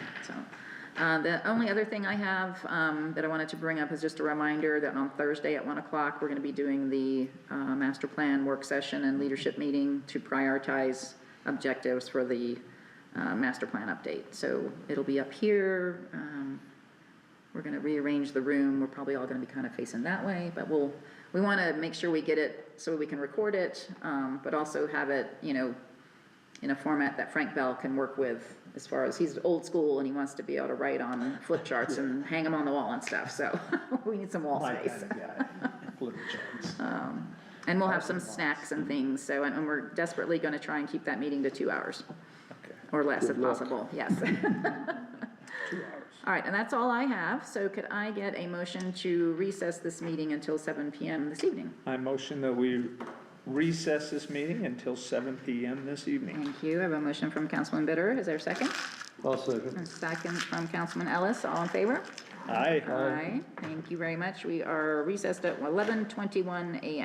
so. Uh, The only other thing I have um, that I wanted to bring up is just a reminder that on Thursday at 1 o'clock, we're going to be doing the uh, master plan work session and leadership meeting to prioritize objectives for the uh, master plan update. So it'll be up here. um, We're going to rearrange the room. We're probably all going to be kind of facing that way, but we'll, we want to make sure we get it so we can record it, um, but also have it, you know, in a format that Frank Bell can work with as far as he's old school and he wants to be able to write on flip charts and hang them on the wall and stuff, so we need some wall My space. kind of guy, Little John's. And we'll have some snacks and things, so, and and we're desperately gonna try and keep that meeting to two hours Okay, or less if Good luck. possible, yes. two hours. All right, and that's all I have, so could I get a motion to recess this meeting until seven PM this evening? I motion that we recess this meeting until seven PM this evening. Thank you, I have a motion from Councilman Bitter, is there a second? I'll second. And second from Councilman Ellis, all in favor? Aye. Aye, thank you very much. We are recessed at eleven twenty-one AM.